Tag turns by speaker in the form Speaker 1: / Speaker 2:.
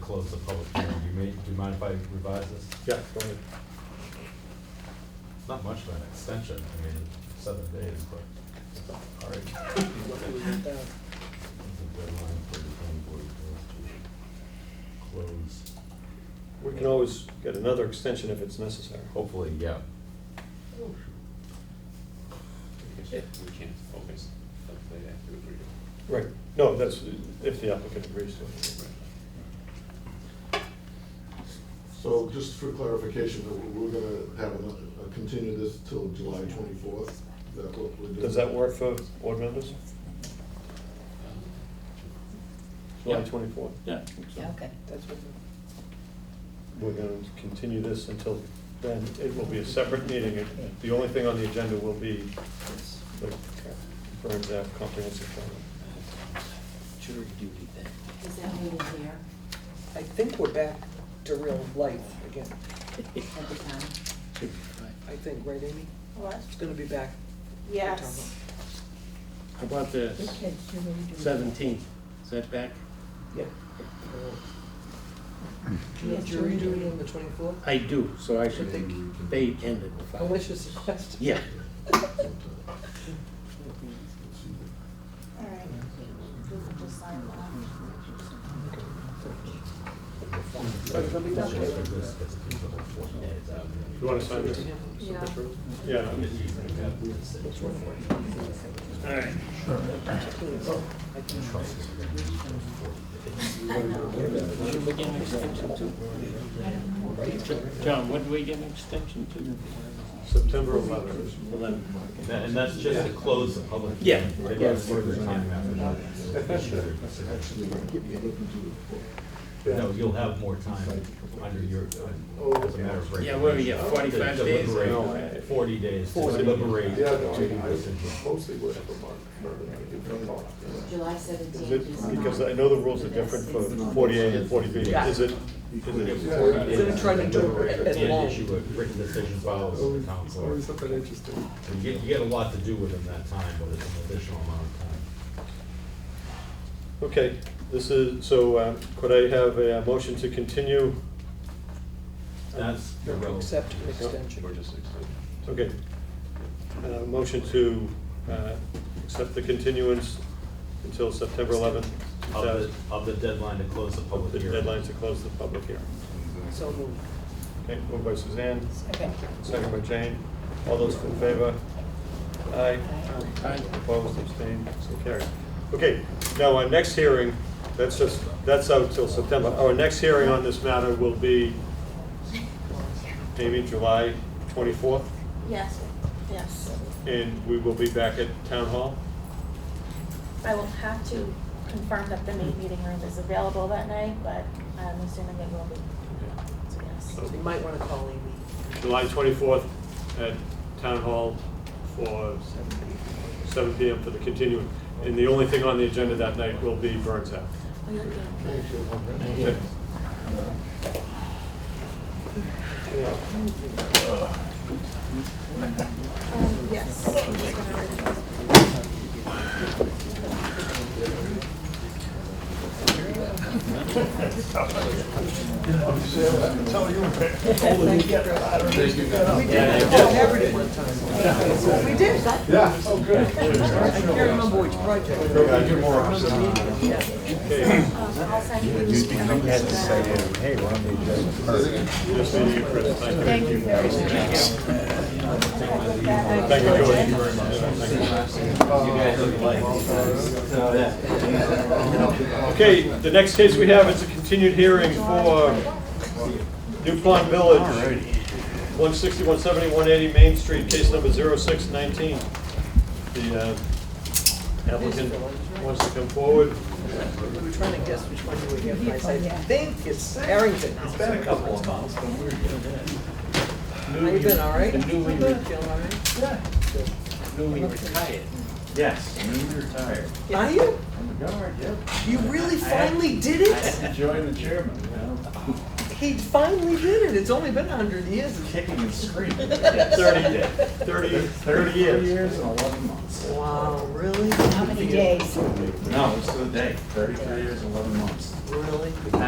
Speaker 1: close the public hearing. Do you ma- do you mind if I revise this?
Speaker 2: Yeah, go ahead.
Speaker 1: It's Not much of an extension, I mean, seven days, but, all right. That's a deadline for the planning board to close,
Speaker 2: We can always get another extension if it's necessary.
Speaker 1: hopefully, yeah.
Speaker 3: We can't focus until they have to agree to
Speaker 2: Right. No, that's if the applicant agrees to it.
Speaker 3: it.
Speaker 4: So just for clarification, that we're gonna have, a- a continue this till July twenty-fourth? Is that what we're doing?
Speaker 2: Does that work for board members? July
Speaker 3: um, Yeah.
Speaker 2: twenty-fourth?
Speaker 3: Yeah.
Speaker 5: Yeah, okay. That's what.
Speaker 2: We're going to continue this until then. It will be a separate meeting. It- The only thing on the agenda will be the Burns Ave comprehensive plan.
Speaker 6: Jury duty then.
Speaker 5: Is that meeting here
Speaker 7: I think we're back to real life again,
Speaker 5: at the time?
Speaker 7: I think, right, Amy?
Speaker 8: What?
Speaker 7: It's gonna be back.
Speaker 8: Yes.
Speaker 6: How about this, seventeen, is that back?
Speaker 7: Yeah. Do you have jury duty on the twenty-fourth?
Speaker 6: I do, so I should think they ended with five.
Speaker 7: Malicious question.
Speaker 6: Yeah.
Speaker 8: All right. We can just sign that.
Speaker 2: You want to sign this?
Speaker 5: Yeah.
Speaker 2: Yeah.
Speaker 6: All right. Should we get an extension to? John, what do we get an extension to?
Speaker 2: September eleventh.
Speaker 6: Eleven.
Speaker 1: And that- And that's just to close the public.
Speaker 6: Yeah.
Speaker 1: hearing. They don't have further time after that. No, you'll have more time under your, as a matter of regulation.
Speaker 6: Yeah, what do we get, forty-five
Speaker 1: To
Speaker 6: days?
Speaker 1: deliberate.
Speaker 2: No, I-
Speaker 1: Forty days to
Speaker 2: 40.
Speaker 1: deliberate.
Speaker 4: Yeah, no,
Speaker 1: to
Speaker 4: I-
Speaker 1: the decision.
Speaker 4: I mostly work for Mark. Berman. I do for Mark.
Speaker 5: July
Speaker 2: Is
Speaker 5: seventeenth is
Speaker 2: it,
Speaker 5: not.
Speaker 2: because I know the rules are different for forty-eight and forty B.
Speaker 7: Yeah.
Speaker 2: Is it, is it,
Speaker 4: Yeah.
Speaker 7: Instead of trying to do it as
Speaker 1: And
Speaker 7: long.
Speaker 1: issue a written decision files to the town clerk.
Speaker 4: Always something interesting.
Speaker 1: You get, you get a lot to do within that time, but it's an additional amount of time.
Speaker 2: okay, this is, so uh, could I have a motion to continue?
Speaker 1: That's irrelevant.
Speaker 7: Accept an extension.
Speaker 3: We're just extending.
Speaker 2: Okay. Uh, Motion to uh, accept the continuance until September eleventh, two thousand.
Speaker 1: Of the, of the deadline to close the public
Speaker 2: The
Speaker 1: hearing.
Speaker 2: deadline to close the public hearing.
Speaker 7: So moved.
Speaker 2: Okay, moved by Suzanne,
Speaker 5: Second.
Speaker 2: second by Jane. All those in favor? Aye.
Speaker 6: Aye.
Speaker 2: Opposed, abstained, so carried. Okay, now our next hearing, that's just, that's out till September. Our next hearing on this matter will be, maybe July twenty-fourth,
Speaker 8: Yes, yes.
Speaker 2: and we will be back at Town Hall.
Speaker 8: I will have to confirm that the main meeting room is available that night, but I'm assuming it will be. So yes.
Speaker 7: You might wanna call Amy.
Speaker 2: July 24th at Town Hall for 7 PM for the continuing. And the only thing on the agenda that night will be Burns Act.
Speaker 8: Will you be-
Speaker 4: Thank you.
Speaker 2: Okay.
Speaker 8: Um, yes.
Speaker 4: Thank you. guys.
Speaker 7: We did. I
Speaker 4: Yeah, oh, good.
Speaker 7: can't remember which project.
Speaker 4: I get more options.
Speaker 2: Okay,
Speaker 8: Um, I'll send you. the-
Speaker 9: hey, we're on the agenda
Speaker 2: just need you, Chris. Thank you.
Speaker 8: Thank you very much.
Speaker 2: Thank you, George. Thank you. Okay, the next case we have is a continued hearing for New Pond Village. 160, 170, 180 Main Street, case number 0619. The uh, applicant wants to come forward.
Speaker 7: We were trying to guess which one you would get, and I said, I think it's Harrington. It's been a couple of months. How you been, all right?
Speaker 6: Newly,
Speaker 7: Feeling all right?
Speaker 6: newly retired.
Speaker 9: Yes, newly retired.
Speaker 7: Are you?
Speaker 9: I'm a guard, yep.
Speaker 7: You really finally did
Speaker 9: I
Speaker 7: it?
Speaker 9: had to join the chairman, you know,
Speaker 7: He finally did it. It's only been a hundred years.
Speaker 9: kicking and screaming.
Speaker 2: 30, 30, 30 years.
Speaker 9: years and eleven months.
Speaker 7: Wow, really?
Speaker 5: How many days?
Speaker 9: No, it's to the day, thirty-three years and eleven months.
Speaker 7: Really?